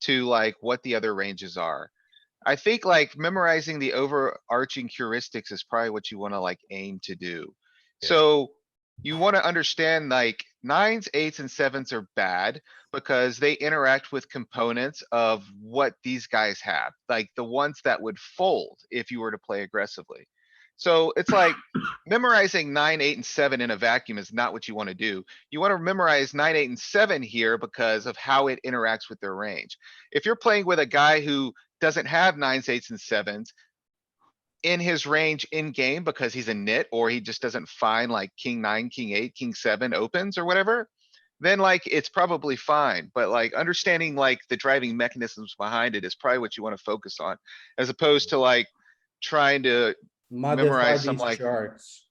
to like what the other ranges are. I think like memorizing the overarching heuristics is probably what you wanna like aim to do. Yeah. So you wanna understand like nines, eights and sevens are bad because they interact with components of what these guys have, like the ones that would fold if you were to play aggressively. So it's like memorizing nine, eight and seven in a vacuum is not what you wanna do. You wanna memorize nine, eight and seven here because of how it interacts with their range. If you're playing with a guy who doesn't have nines, eights and sevens. In his range in game because he's a nit or he just doesn't find like king nine, king eight, king seven opens or whatever. Then like it's probably fine, but like understanding like the driving mechanisms behind it is probably what you wanna focus on. As opposed to like trying to, Modify Memorize some, these like- charts.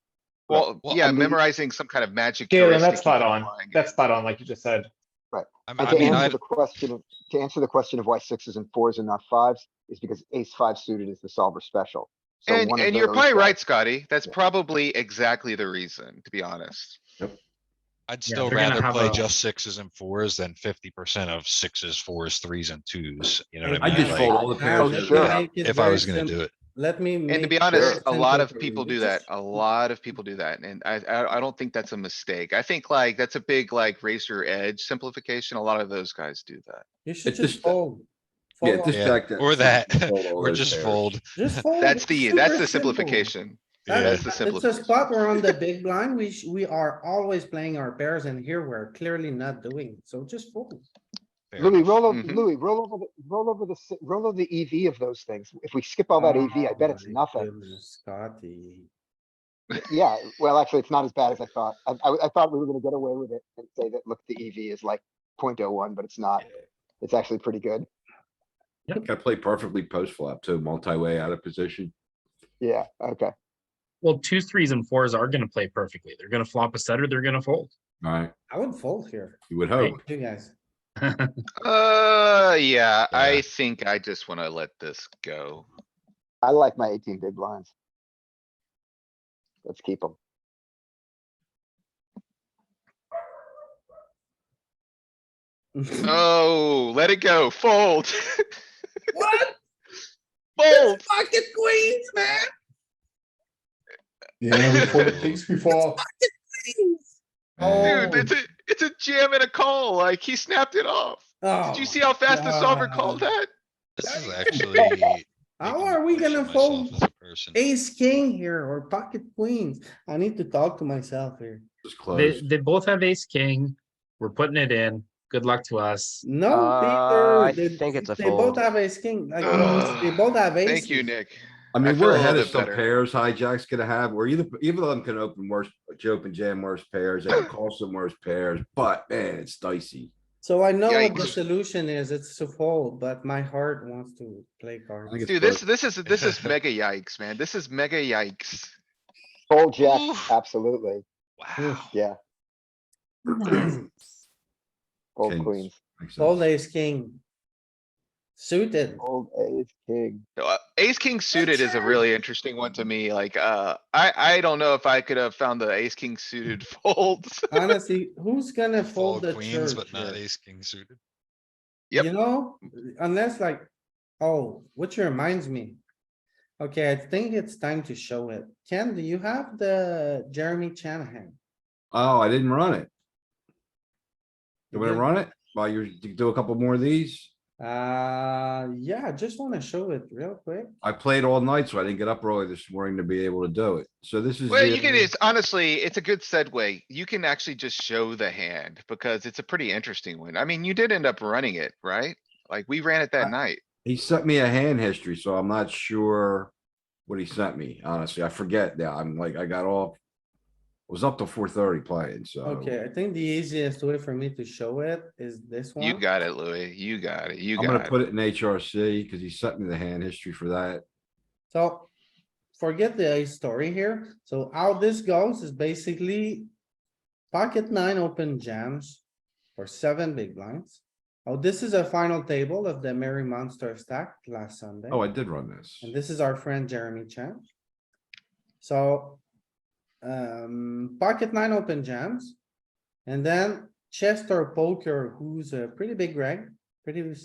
well, well, yeah, I mean- memorizing some kind of magic. Galen, that's heuristic spot and on. applying it. That's spot on, like you just said. I And I to mean, I, answer the question of, to answer the question of why sixes and fours and not fives is because ace five suited is the solver special. So And, one of and you're those probably that- right, Scotty. That's Yeah. probably exactly the reason, to be honest. I'd Yeah, still they're gonna rather have play a- just sixes and fours than fifty percent of sixes, fours, threes and twos, you know what I I mean? just Like, fold all the Now, pairs. let me sure. make it If I very was gonna sim- do it, Let me. And to make be it honest, very a lot simple of for people you. do that. This is- A lot of people do that. And I, I, I don't think that's a mistake. I think like, that's a big like raise your edge simplification. A lot of those guys do that. You should It's just just- fold. Yeah, Fold just all- Yeah, check that. or that, Fold all or those just pairs. fold. just fold. That's It's the, that's super the simple. simplification. Yeah. That's That's, the it's a simplification. spot where on the big blind, we, sh- we are always playing our pairs and here we're clearly not doing, it. so just fold. fair Louis, enough. roll over, Mhm. Louis, roll over, the roll over the, si- roll over the EV of those things. If we skip all that EV, I bet it's Oh my nothing. goodness, Scotty. Yeah, well, actually, it's not as bad as I thought. I, I, I thought we were gonna get away with it and say that, look, the EV is like 0.01, but it's not. It's actually pretty good. I think I play perfectly post flop too, multi-way out of position. Yeah, okay. Well, twos, threes, and fours are gonna play perfectly. They're gonna flop a set or they're gonna fold. Alright, I would fold here, you would hope. you guys. Uh, yeah, Yeah. I think I just wanna let this go. I like my eighteen big blinds. Let's keep them. Oh, let it go. Fold. What? Fold. Pocket queens, man. Yeah, we folded things before. Dude, it's a, it's a jam and a call. Like he snapped it off. Did you see how fast the solver called Oh, God. that? This is actually. How making are me we question gonna myself fold as a person. ace king here or pocket queens? I need to talk to myself here. Just They, close. they both have ace, king. We're putting it in. Good luck to us. No, Uh, I Peter. they- think it's a They both fold. have ace king, like, Ugh. they both have ace. Thank you, Nick. I I mean, feel a we're little ahead of bit some better. pairs hijack's gonna have, where either, either of them can open worse, open jam worse pairs, they can call some worse pairs, but man, it's dicey. So I know what the Yikes. solution is, it's to fold, but my heart wants to play cards. I think it's Dude, this, both. this is, this is mega yikes, man. This is mega yikes. Fold jack, Oof. absolutely. Wow. Yeah, fold Kings. queens, Makes sense. Fold ace king. Suited, Oh. fold ace, king. Uh, Ace king suited is a really interesting one to me. Like, uh, I, I don't know if I could have found the ace king suited folds. honestly, who's gonna Fold fold the queens, church but not here? ace, king suited. Yep. You know, unless like, oh, which reminds me. Okay, I think it's time to show it. Ken, do you have the Jeremy Shanahan? Oh, I didn't run it. You You wanna didn't? run it? While you're, you do a couple more of these? Uh, yeah, I just wanna show it real quick. I played all night, so I didn't get up early this morning to be able to do it. So this is. Well, the- you can, it's honestly, it's a good segue. You can actually just show the hand because it's a pretty interesting one. I mean, you did end up running it, right? Like, we ran Uh, it that night. He sent me a hand history, so I'm not sure what he sent me, honestly. I forget now. I'm like, I got all. Was up till four thirty playing, so. Okay, I think the easiest way for me to show it is this one. You got it, Louis. You got it. You I'm gonna got it. put it in HRC because he sent me the hand history for that. So forget the story here. So how this goes is basically pocket nine open jams or seven big blinds. Oh, this is a final table of the Merry Monster stack last Sunday. Oh, I did run this. And this is our friend Jeremy Chan. So, um, pocket nine open jams. And then Chester poker, who's a pretty big reg, pretty